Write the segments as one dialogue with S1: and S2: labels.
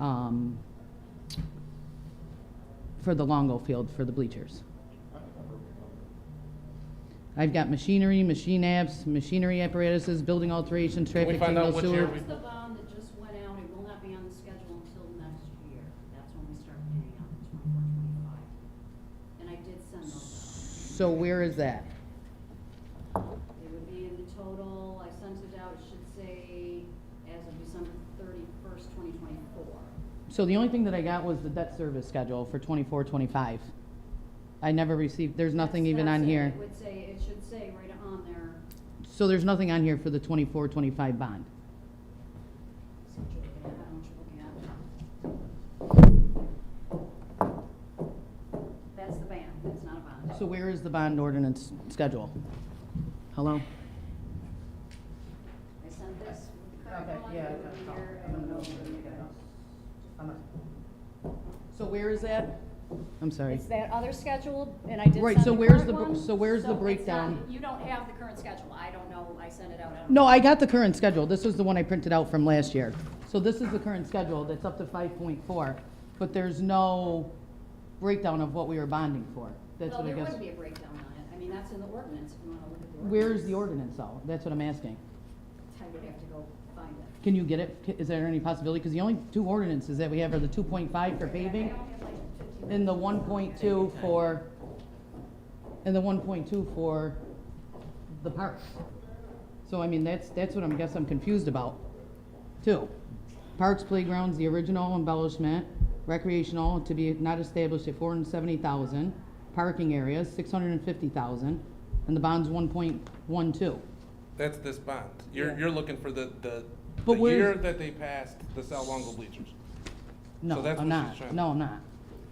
S1: um, for the Longo Field for the bleachers. I've got machinery, machine apps, machinery apparatuses, building alterations,
S2: Can we
S1: traffic
S2: find
S1: signal
S2: out what year
S1: sewer.
S2: we-
S3: That's the bond that just went out, it will not be on the schedule until next year. That's when we start paying out the twenty-four, twenty-five. And I did send those
S1: So where is that?
S3: out. It would be in the total, I sent it out, it should say as of December thirty-first, twenty twenty-four.
S1: So the only thing that I got was the debt service schedule for twenty-four, twenty-five. I never received, there's nothing even on here.
S3: It would say, it should say right on there,
S1: So there's nothing on here for the twenty-four, twenty-five bond.
S3: so what you're looking at, I don't know what you're looking at. That's the band, that's not a bond.
S1: So where is the bond ordinance schedule? Hello?
S3: I sent this with the
S4: Okay,
S3: current one,
S4: yeah,
S3: it
S4: that's
S3: would be
S4: all.
S3: here, um,
S4: I
S3: and
S4: don't know
S3: it
S4: where
S3: would
S4: you
S3: be
S4: got
S3: there.
S4: it. I'm not-
S1: So where is that? I'm sorry.
S3: It's that other schedule, and I did
S1: Right,
S3: send
S1: so
S3: the
S1: where's
S3: current
S1: the br-
S3: one,
S1: so where's the
S3: it's not-
S1: breakdown?
S3: You don't have the current schedule, I don't know, I sent it out, I don't know.
S1: No, I got the current schedule. This was the one I printed out from last year. So this is the current schedule that's up to five point four, but there's no breakdown of what we were bonding for. That's
S3: Well,
S1: what I
S3: there
S1: guess.
S3: wouldn't be a breakdown on it, I mean, that's in the ordinance, if you wanna look at the ordinance.
S1: Where's the ordinance though? That's what I'm asking.
S3: I would have to go find it.
S1: Can you get it? C- Is there any possibility? Because the only two ordinances that we have are the two point five for
S3: I
S1: paving
S3: don't have like 15
S1: and the one point two for, and the one point two for the parks. So I mean, that's, that's what I'm, guess I'm confused about, too. Parks, playgrounds, the original embellishment, recreational to be not established at four hundred and seventy thousand, parking areas, six hundred and fifty thousand, and the bond's one point one two.
S2: That's this bond. You're,
S1: Yeah.
S2: you're looking for the, the, the
S1: But where's-
S2: year that they passed the Sal Longo bleachers. So
S1: No,
S2: that's
S1: I'm
S2: what she's
S1: not,
S2: trying-
S1: no, I'm not.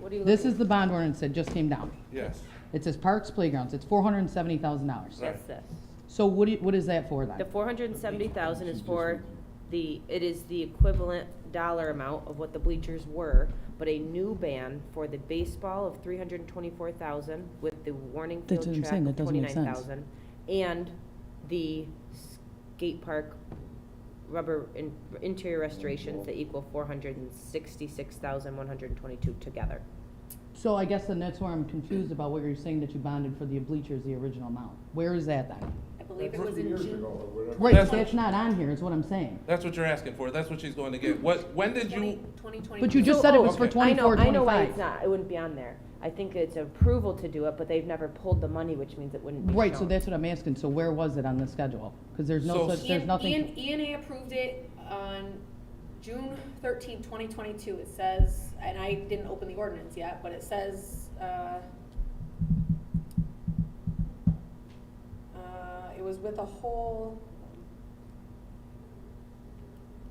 S3: What are you
S1: This
S3: looking
S1: is the bond ordinance that just came down.
S2: Yes,
S1: It says parks, playgrounds, it's four hundred and seventy thousand dollars.
S2: Right.
S5: That's this.
S1: So what, do you- what is that for then?
S5: The four hundred and seventy thousand is for the, it is the equivalent dollar amount of what the bleachers were, but a new ban for the baseball of three hundred and twenty-four thousand with the warning
S1: That's what I'm
S5: field track
S1: saying,
S5: of
S1: that doesn't make
S5: twenty-nine
S1: sense.
S5: thousand. And the skate park rubber in- interior restorations that equal four hundred and sixty-six thousand one hundred and twenty-two together.
S1: So I guess then that's where I'm confused about where you're saying that you bonded for the bleachers, the original amount. Where is that then?
S3: I believe it
S6: That's
S3: was in
S6: years
S3: June.
S6: ago or whatever.
S1: Right,
S2: That's-
S1: that's not on here, is what I'm saying.
S2: that's what you're asking for. That's what she's going to get. What, when did you,
S1: But you just said it was for
S2: Okay.
S5: oh, I know,
S1: twenty-four,
S5: I know why it's
S1: twenty-five.
S5: not, it wouldn't be on there. I think it's approval to do it, but they've never pulled the money, which means it wouldn't be
S1: Right, so
S5: shown.
S1: that's what I'm asking, so where was it on the schedule? Because there's no
S2: So-
S1: such, there's
S7: Ian,
S1: nothing,
S7: Ian, Ian A approved it on June 13, 2022. It says, and I didn't open the ordinance yet, but it says, uh, uh, uh, it was with a whole,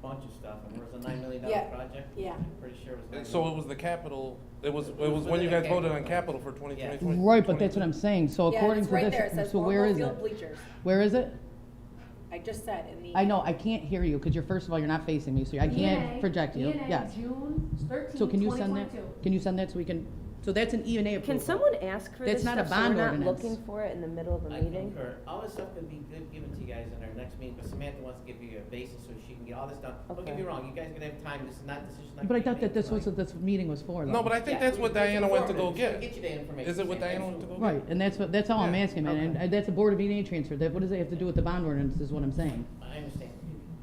S8: bunch of stuff, and it was a nine million dollar
S7: Yeah.
S8: project.
S7: Yeah.
S8: I'm pretty sure it was. nine
S2: so
S8: million.
S2: it was the capital, it was, it was when you guys voted on capital for twenty twenty.
S1: right, but that's what I'm saying, so
S7: yeah, and
S1: according
S7: it's
S1: to
S7: right there. It
S1: this,
S7: says
S1: so where
S7: Marlboro
S1: is
S7: Field
S1: it?
S7: bleachers.
S1: Where is it?
S7: I just said in the.
S1: I know, I can't hear you, because you're, first of all, you're not facing me, so I
S7: E
S1: can't project you, yes.
S3: June thirteenth,
S1: So can you send that, can you send that so we can, so that's an E and A approval?
S5: Can someone ask for
S1: That's
S5: this
S1: not a
S5: stuff so we're
S1: bond
S5: not
S1: ordinance.
S5: looking for it in the middle of a
S8: I
S5: meeting?
S8: concur. All this stuff could be good, given to you guys in our next meeting, but Samantha wants to give you a basis so she can get all this done. Don't get
S5: Okay.
S8: me wrong, you guys are gonna have time, this is not, this is not.
S1: But I thought that this was what this meeting was for, though.
S2: No, but I think that's what Diana went to go get.
S8: Get you that information.
S2: Is it what
S8: Sam,
S2: Diana went to go get?
S1: Right, and that's what, that's all I'm
S2: Yeah,
S1: asking, man, and
S5: okay.
S1: uh, that's a Board of E and A transfer, that, what does that have to do with the bond ordinance, is what I'm saying.
S8: I understand.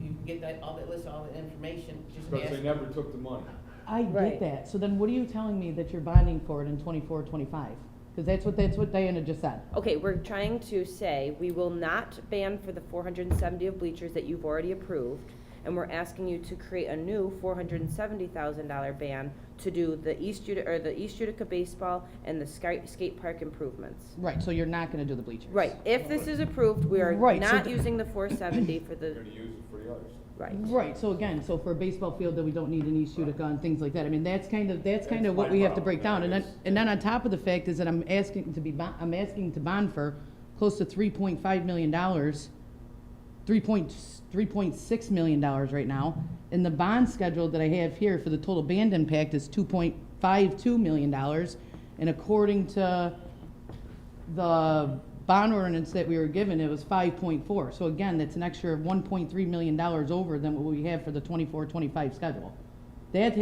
S8: You- You can get that, all that, list, all the information, just
S6: Because they
S8: ask.
S6: never took the money.
S1: I get
S5: Right.
S1: that, so then what are you telling me that you're bonding for it in twenty-four, twenty-five? Because that's what, that's what Diana just said.
S5: Okay, we're trying to say, we will not ban for the four hundred and seventy of bleachers that you've already approved, and we're asking you to create a new four hundred and seventy thousand dollar ban to do the East Utica, or the East Utica baseball and the sky, skate park improvements.
S1: Right, so you're not gonna do the bleachers.
S5: Right, if this is approved, we are
S1: Right, so
S5: not
S1: th-
S5: using the four seventy for
S6: They're
S5: the,
S6: gonna use it for the others.
S5: right.
S1: Right, so again, so for a baseball field that we don't need an E East Utica and things like that, I mean, that's kind of, that's kind of
S6: That's
S1: what
S6: my
S1: we have to
S6: problem.
S1: break down, and then,
S6: That is-
S1: and then on top of the fact is that I'm asking to be, bon- I'm asking to bond for close to three point five million dollars, three point, three point six million dollars right now, and the bond schedule that I have here for the total band impact is two point five two million dollars, and according to the bond ordinance that we were given, it was five point four. So again, that's an extra one point three million dollars over than what we have for the twenty-four, twenty-five schedule. That